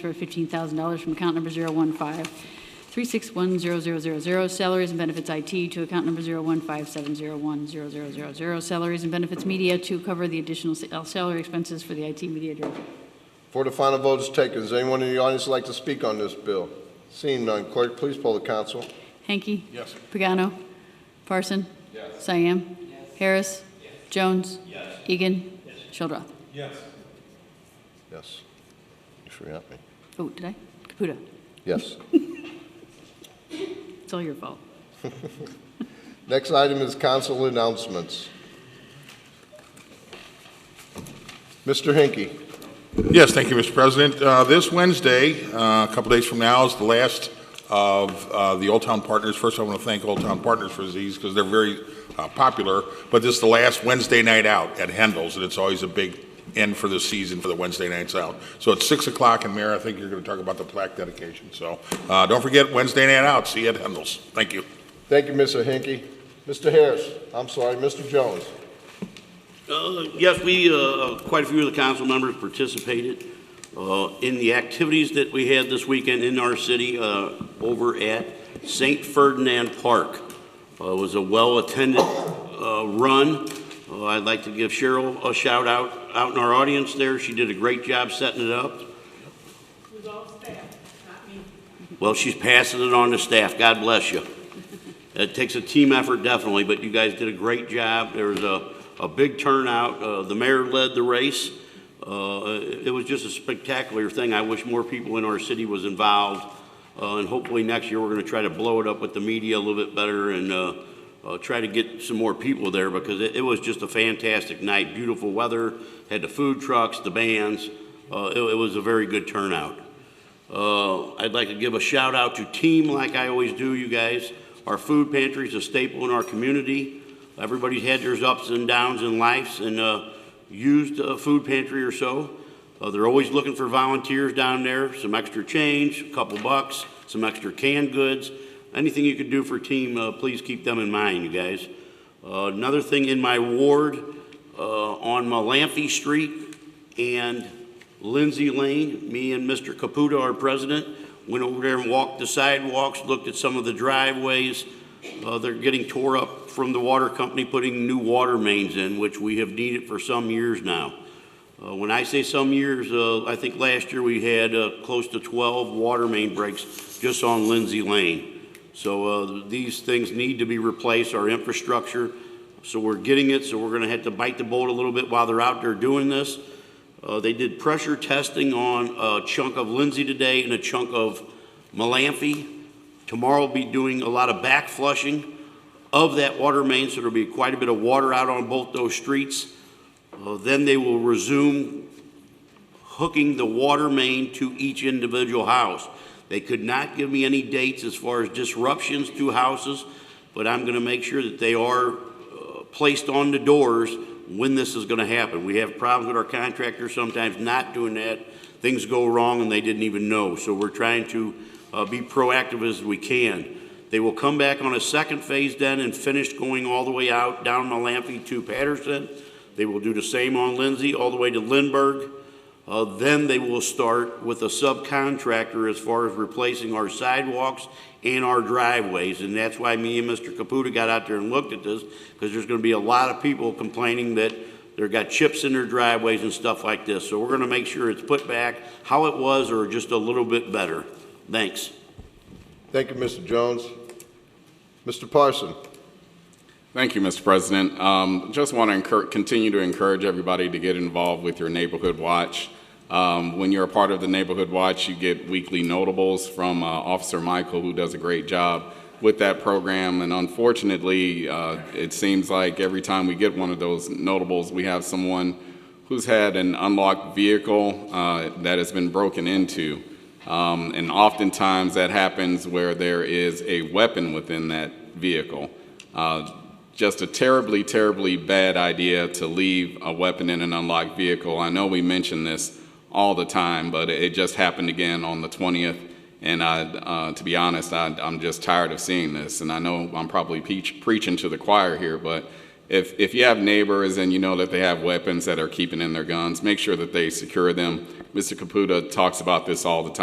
transfer of $15,000 from account number 015-361-0000, salaries and benefits IT, to account number 015-701-0000, salaries and benefits media, to cover the additional sa- uh, salary expenses for the IT media director. Before the final vote is taken, does anyone in the audience like to speak on this bill? Seeing none, clerk, please poll the council. Hanky? Yes. Pagano? Parson? Yes. Cyan? Harris? Jones? Egan? Shildroth? Yes. You forgot me. Oh, did I? Caputa. Yes. It's all your fault. Next item is council announcements. Mr. Hinky. Yes, thank you, Mr. President. Uh, This Wednesday, uh, a couple days from now, is the last of uh, the Old Town Partners. First, I want to thank Old Town Partners for these because they're very uh, popular, but this is the last Wednesday night out at Hendel's, and it's always a big end for the season for the Wednesday nights out. So it's 6 o'clock, and Mayor, I think you're going to talk about the plaque dedication. So uh, don't forget, Wednesday night out, see you at Hendel's. Thank you. Thank you, Mr. Hinky. Mr. Harris, I'm sorry, Mr. Jones. Uh, Yes, we, uh, quite a few of the council members participated uh, in the activities that we had this weekend in our city uh, over at St. Ferdinand Park. Uh, It was a well-attended uh, run. Uh, I'd like to give Cheryl a shout out, out in our audience there. She did a great job setting it up. was all staff, not me. Well, she's passing it on to staff. God bless you. It takes a team effort, definitely, but you guys did a great job. There was a, a big turnout. Uh, the mayor led the race. Uh, it was just a spectacular thing. I wish more people in our city was involved. Uh, and hopefully next year, we're gonna try to blow it up with the media a little bit better and, uh, uh, try to get some more people there because it, it was just a fantastic night. Beautiful weather, had the food trucks, the bands. Uh, it, it was a very good turnout. Uh, I'd like to give a shout out to Team, like I always do, you guys. Our food pantry is a staple in our community. Everybody's had their ups and downs in lives and uh, used a food pantry or so. Uh, They're always looking for volunteers down there, some extra change, a couple bucks, some extra canned goods. Anything you could do for Team, uh, please keep them in mind, you guys. Uh, Another thing in my ward, uh, on Malamphy Street and Lindsay Lane, me and Mr. Caputa, our president, went over there and walked the sidewalks, looked at some of the driveways. Uh, They're getting tore up from the water company putting new water mains in, which we have needed for some years now. Uh, When I say some years, uh, I think last year we had uh, close to 12 water main breaks just on Lindsay Lane. So uh, these things need to be replaced, our infrastructure. So we're getting it, so we're going to have to bite the bullet a little bit while they're out there doing this. Uh, They did pressure testing on a chunk of Lindsay today and a chunk of Malamphy. Tomorrow will be doing a lot of back flushing of that water main, so there'll be quite a bit of water out on both those streets. Uh, Then they will resume hooking the water main to each individual house. They could not give me any dates as far as disruptions to houses, but I'm going to make sure that they are uh, placed on the doors when this is going to happen. We have problems with our contractors sometimes not doing that. Things go wrong and they didn't even know. So we're trying to uh, be proactive as we can. They will come back on a second phase then and finish going all the way out down Malamphy to Patterson. They will do the same on Lindsay, all the way to Lindbergh. Uh, Then they will start with a subcontractor as far as replacing our sidewalks and our driveways. And that's why me and Mr. Caputa got out there and looked at this, because there's going to be a lot of people complaining that they've got chips in their driveways and stuff like this. So we're going to make sure it's put back how it was or just a little bit better. Thanks. Thank you, Mr. Jones. Mr. Parson. Thank you, Mr. President. Um, Just want to encour- continue to encourage everybody to get involved with your Neighborhood Watch. Um, When you're a part of the Neighborhood Watch, you get weekly notables from uh, Officer Michael, who does a great job with that program. And unfortunately, uh, it seems like every time we get one of those notables, we have someone who's had an unlocked vehicle uh, that has been broken into. Um, And oftentimes, that happens where there is a weapon within that vehicle. Uh, just a terribly, terribly bad idea to leave a weapon in an unlocked vehicle. I know we mention this all the time, but it just happened again on the 20th. And I, uh, to be honest, I, I'm just tired of seeing this. And I know I'm probably peach, preaching to the choir here, but if, if you have neighbors and you know that they have weapons that are keeping in their guns, make sure that they secure them, Mr. Caputa talks about this all the time.